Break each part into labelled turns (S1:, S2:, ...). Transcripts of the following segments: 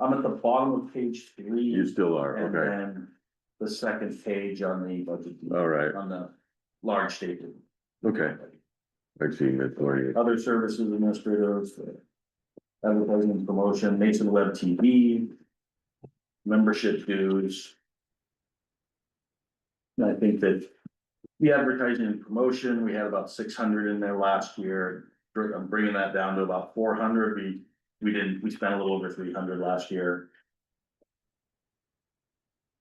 S1: I'm at the bottom of page three.
S2: You still are,
S1: And
S2: okay,
S1: then the second page on the budget,
S2: all right,
S1: on the large statement.
S2: okay, I've seen that for you,
S1: Other services administrators. uh, Advertising and promotion, Mason Web TV. Membership dues. And I think that. The advertising and promotion, we had about six hundred in there last year, Br- I'm bringing that down to about four hundred, we, we didn't, we spent a little over three hundred last year.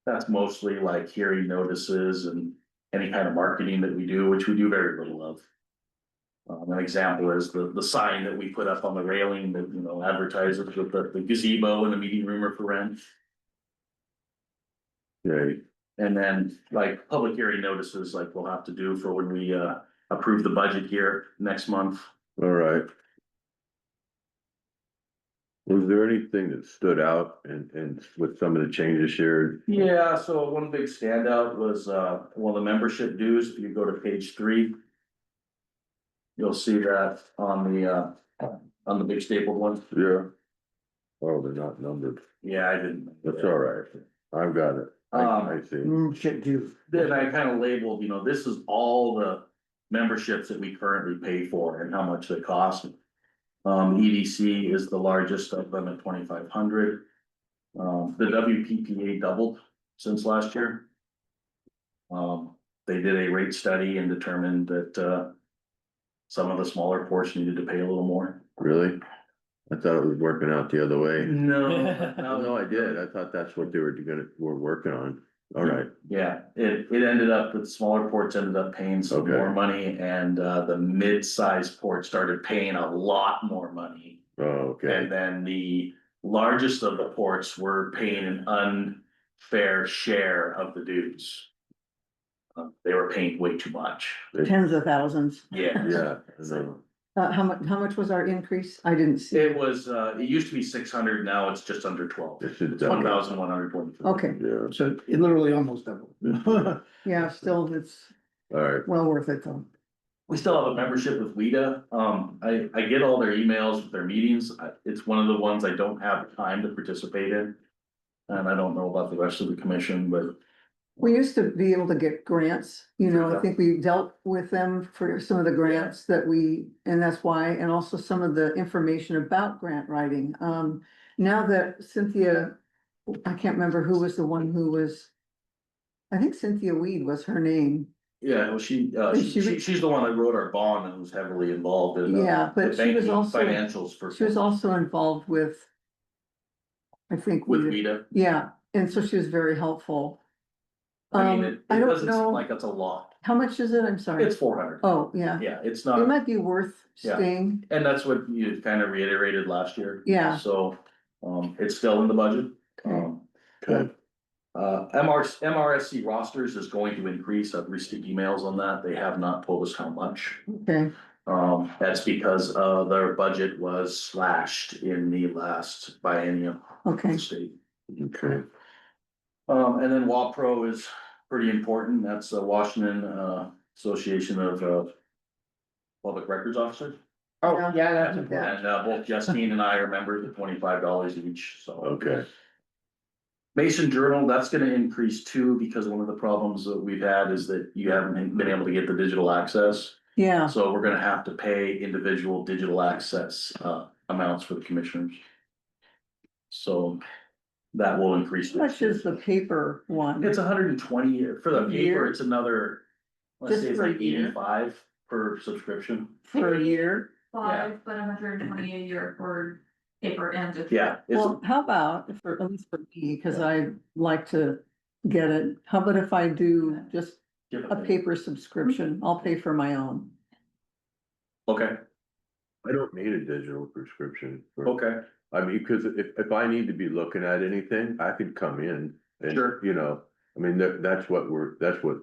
S1: That's mostly like hearing notices and any kind of marketing that we do, which we do very little of. Um, an example is the, the sign that we put up on the railing that, you know, advertises with the the gazebo and the meeting room are for rent.
S2: okay,
S1: And then like public hearing notices, like we'll have to do for when we, uh, approve the budget here next month.
S2: all right. Was there anything that stood out and, and with some of the changes shared?
S1: Yeah, so one big standout was, uh, well, the membership dues, if you go to page three. You'll see that on the, uh, on the big stapled one.
S2: Yeah. Oh, they're not numbered,
S1: Yeah, mm. I didn't. Um,
S2: that's all right, I've got it, I, I see,
S1: Then I kind of labeled, you know, this is all the memberships that we currently pay for and how much they cost. Um, EDC is the largest of them at twenty-five hundred. Um, the WPPA doubled since last year. Um, they did a rate study and determined that, uh, some of the smaller ports needed to pay a little more.
S2: really? I thought it was working out the other way, Oh,
S1: No.
S2: no, I did, I thought that's what they were gonna, were working on, all right,
S1: Yeah, it, it ended up, the smaller ports ended up paying some
S2: Okay.
S1: more money and, uh, the mid-sized port started paying a lot more money.
S2: oh, okay.
S1: And then the largest of the ports were paying an unfair share of the dues. Um, They were paying way too much.
S3: Tens of thousands.
S1: Yeah,
S2: Yeah, I know.
S3: Uh, how much, how much was our increase? I didn't see.
S1: it was, uh, it used to be six hundred, now it's just under twelve.
S2: It should
S1: It's one thousand one hundred twenty-three.
S3: Okay,
S2: Yeah,
S4: So it literally almost doubled.
S2: all
S3: yeah, still, it's
S2: right,
S3: well worth it though.
S1: We still have a membership with Lita. Um, I, I get all their emails with their meetings. I- It's one of the ones I don't have time to participate in. And I don't know about the rest of the commission, but
S3: We used to be able to get grants, you know,
S1: Yeah.
S3: I think we dealt with them for some of the grants that we, and that's why, and also some of the information about grant writing. Um, now that Cynthia, I can't remember who was the one who was, I think Cynthia Weed was her name.
S1: yeah, well, she, uh,
S3: But
S1: she,
S3: she
S1: she-
S3: was-
S1: she's the one that wrote our bond and was heavily involved in. uh,
S3: Yeah,
S1: the
S3: but she was
S1: banking
S3: also,
S1: Financials for.
S3: she was also involved with, I think.
S1: With
S3: Weed-
S1: Lita.
S3: Yeah, and so she was very helpful.
S1: I mean,
S3: Um,
S1: it,
S3: I
S1: it
S3: don't
S1: doesn't
S3: know-
S1: seem like that's a lot.
S3: How much is it? I'm sorry.
S1: It's four hundred.
S3: Oh, yeah.
S1: Yeah, it's
S3: It
S1: not,
S3: might be worth
S1: Yeah.
S3: staying.
S1: and that's what you kind of reiterated last year.
S3: Yeah.
S1: So, um, it's still in the budget.
S3: Okay.
S1: Um,
S2: good,
S1: Uh, MR, MRSC rosters is going to increase. I've received emails on that. They have not told us how much.
S3: Okay,
S1: Um, that's because, uh, their budget was slashed in the last biennium of
S3: okay.
S1: the state.
S2: okay,
S1: Um, and then WAPRO is pretty important. That's the Washington, uh, Association of, uh, Public Records Officers.
S4: Oh,
S3: Yeah.
S4: yeah, that's
S1: And,
S4: important.
S1: uh, both Justine and I are members at twenty-five dollars each, so.
S2: okay,
S1: Mason Journal, that's gonna increase too, because one of the problems that we've had is that you haven't been able to get the digital access.
S3: Yeah,
S1: So we're gonna have to pay individual digital access uh amounts for the commissioners. So that will increase.
S3: how much is the paper one?
S1: It's hundred and twenty for the paper,
S3: Year?
S1: it's another, let's
S3: Just
S1: say it's
S3: for a
S1: like
S3: year?
S1: eighty-five per subscription.
S3: For a year?
S5: five, but hundred and twenty a year for paper and. digital.
S1: Yeah, it's,
S3: Well, how about, for, at least for me, because I like to get it, how about if I do just a paper subscription? I'll pay for my own.
S1: okay,
S2: I don't need a digital prescription. for-
S1: okay,
S2: I mean, cause if, if I need to be looking at anything, I could come in and,
S1: Sure.
S2: you know, I mean, that, that's what we're, that's what.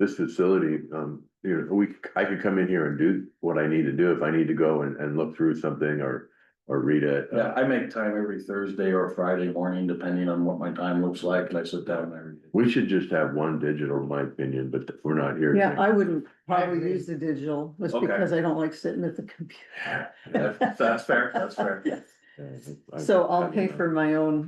S2: This facility, um, you know, we, I could come in here and do what I need to do if I need to go and, and look through something or, or read it. Uh,
S1: yeah, I make time every Thursday or Friday morning, depending on what my time looks like, and I sit down and I read it.
S2: We should just have one digital, in my opinion, but we're not here.
S3: Yeah, I wouldn't probably
S4: agree.
S3: use the digital, just
S1: Okay.
S3: because I don't like sitting at the computer.
S1: That's that's fair, that's fair.
S3: Yes.
S2: Yeah, I-
S3: uh, So
S2: I
S3: I'll
S2: don't
S3: pay
S2: know.
S3: for my own